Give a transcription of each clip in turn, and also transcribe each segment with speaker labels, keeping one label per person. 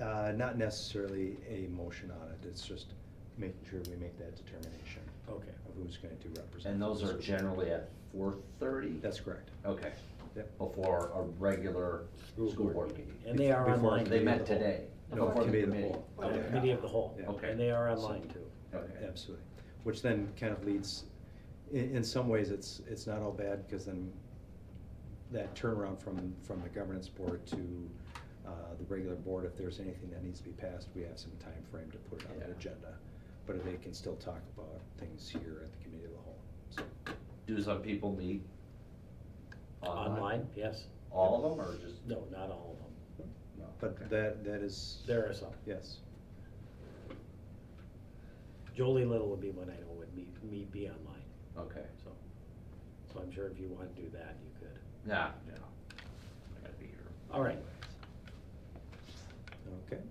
Speaker 1: Uh, Not necessarily a motion on it, it's just making sure we make that determination
Speaker 2: Okay.
Speaker 1: of who's going to represent.
Speaker 3: And those
Speaker 1: us.
Speaker 3: are generally at four thirty?
Speaker 1: That's correct.
Speaker 3: Okay.
Speaker 1: Yep.
Speaker 3: Before a regular
Speaker 1: School
Speaker 3: school
Speaker 1: board
Speaker 3: board meeting.
Speaker 2: And they are
Speaker 1: Before
Speaker 2: online.
Speaker 3: They
Speaker 1: Committee
Speaker 3: met
Speaker 1: of the whole.
Speaker 3: today.
Speaker 1: No,
Speaker 3: before the
Speaker 1: committee of the
Speaker 3: committee.
Speaker 1: whole.
Speaker 2: Oh,
Speaker 3: Okay.
Speaker 2: Committee of the whole.
Speaker 1: Yeah.
Speaker 3: Okay.
Speaker 2: And they are online too.
Speaker 3: Okay.
Speaker 1: Absolutely. Which then kind of leads, in, in some ways, it's, it's not all bad, because then that turnaround from, from the governance board to uh, the regular board, if there's anything that needs to be passed, we have some time frame to put it on the
Speaker 3: Yeah.
Speaker 1: agenda. But they can still talk about things here at the committee of the whole, so.
Speaker 3: Do some people meet?
Speaker 2: Online, yes.
Speaker 3: All of them or just?
Speaker 2: No, not all of them.
Speaker 3: no, okay.
Speaker 1: But that, that is.
Speaker 2: There are some.
Speaker 1: Yes.
Speaker 2: Jolie Little would be one I know would meet, meet, be online,
Speaker 3: Okay,
Speaker 2: so. So I'm sure if you want to do that, you could.
Speaker 3: yeah, yeah. I gotta be here.
Speaker 2: All right.
Speaker 1: Okay.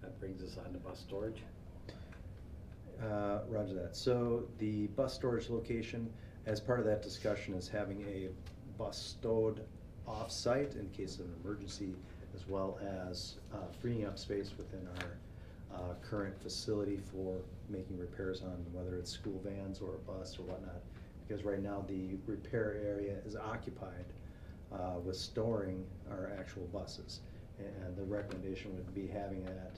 Speaker 2: That brings us on to bus storage.
Speaker 1: Uh, Roger that. So the bus storage location, as part of that discussion, is having a bus stowed off-site in case of an emergency, as well as uh, freeing up space within our uh, current facility for making repairs on whether it's school vans or a bus or whatnot. Because right now, the repair area is occupied uh, with storing our actual buses. And the recommendation would be having that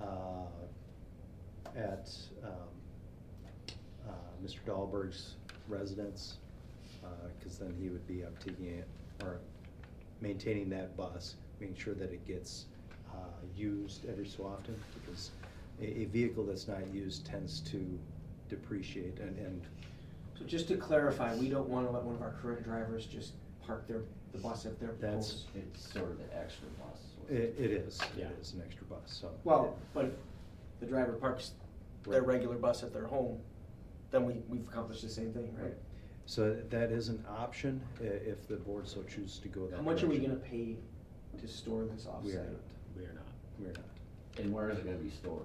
Speaker 1: uh, at um, uh, Mr. Dahlberg's residence, because then he would be up taking it, or maintaining that bus, making sure that it gets uh, used every so often, because a, a vehicle that's not used tends to depreciate and, and
Speaker 4: So just to clarify, we don't wanna let one of our current drivers just park their, the bus at their
Speaker 1: That's-
Speaker 4: poles.
Speaker 3: It's sort of the extra bus.
Speaker 1: it, it is, it
Speaker 2: Yeah.
Speaker 1: is an extra bus, so.
Speaker 4: Well, but if the driver parks their
Speaker 1: Right.
Speaker 4: regular bus at their home, then we, we've accomplished the same thing, right?
Speaker 1: So that is an option, i- if the board so chooses to go that
Speaker 4: How much are we gonna
Speaker 1: direction.
Speaker 4: pay to store this
Speaker 1: We are
Speaker 4: offsite?
Speaker 1: not,
Speaker 2: We are not.
Speaker 1: we are not,
Speaker 3: And where is it gonna be stored?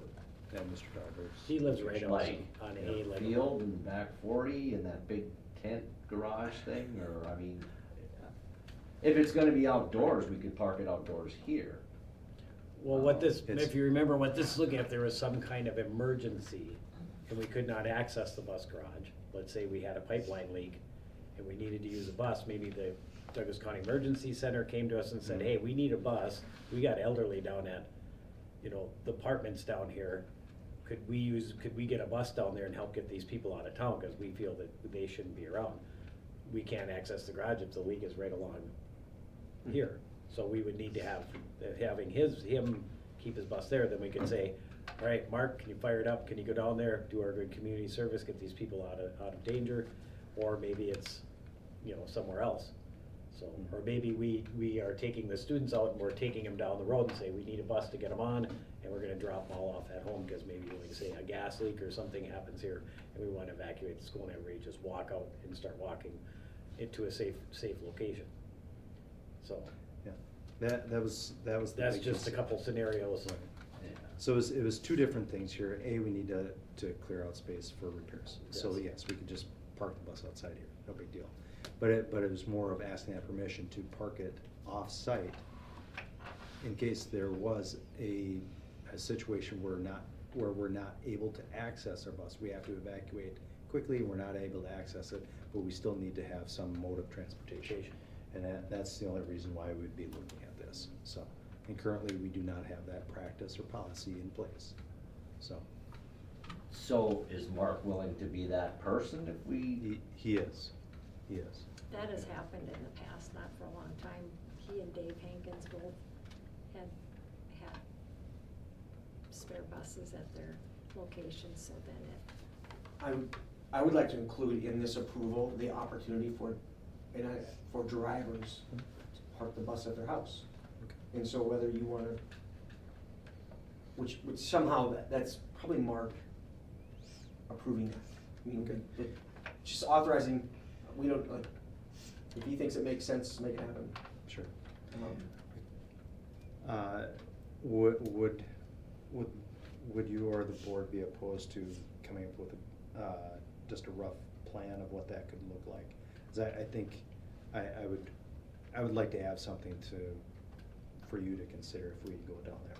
Speaker 1: at Mr. Dahlberg's.
Speaker 2: He lives right on,
Speaker 3: Like,
Speaker 2: on
Speaker 3: in a
Speaker 2: A level.
Speaker 3: Field and back forty and that big tent garage thing, or, I mean, if it's gonna be outdoors, we could park it outdoors here.
Speaker 2: Well, what this,
Speaker 1: It's-
Speaker 2: if you remember what this is looking at, there was some kind of emergency and we could not access the bus garage. Let's say we had a pipeline leak and we needed to use a bus, maybe the Douglas County Emergency Center came to us and said, hey, we need a bus. We got elderly down at, you know, the apartments down here. Could we use, could we get a bus down there and help get these people out of town? Cause we feel that they shouldn't be around. We can't access the garage if the leak is right along here. So we would need to have, having his, him keep his bus there, then we could say, all right, Mark, can you fire it up? Can you go down there, do our good community service, get these people out of, out of danger? Or maybe it's, you know, somewhere else. So, or maybe we, we are taking the students out and we're taking them down the road and say, we need a bus to get them on, and we're gonna drop them all off at home, because maybe, like, say, a gas leak or something happens here, and we wanna evacuate the school, and everybody just walk out and start walking it to a safe, safe location. So,
Speaker 1: Yeah, that, that was, that was. the
Speaker 2: that's
Speaker 1: big
Speaker 2: just a
Speaker 1: concern.
Speaker 2: couple scenarios.
Speaker 1: So it was, it was two different things here. A, we need to, to clear out space for repairs. So
Speaker 2: Yes.
Speaker 1: yes, we could just park the bus outside here, no big deal. But it, but it was more of asking that permission to park it off-site in case there was a, a situation where not, where we're not able to access our bus. We have to evacuate quickly, we're not able to access it, but we still need to have some mode of transportation. And that, that's the only reason why we'd be looking at this, so. And currently, we do not have that practice or policy in place, so.
Speaker 3: So is Mark willing to be that person if we,
Speaker 1: He, he is, he is.
Speaker 5: That has happened in the past, not for a long time. He and Dave Hankins both had, had spare buses at their locations, so then it,
Speaker 4: I, would- I would like to include in this approval, the opportunity for, and I, for drivers to park the bus at their house. And so whether you wanna, which, which somehow, that that's probably Mark approving that. I mean, it- just authorizing, we don't, like, if he thinks it makes sense, make it happen.
Speaker 1: Sure.
Speaker 4: Um,
Speaker 1: Uh, Would, would, would, would you or the board be opposed to coming up with, a, uh, just a rough plan of what that could look like? 'Cause I, I think, I, I would, I would like to have something to, for you to consider if we go down that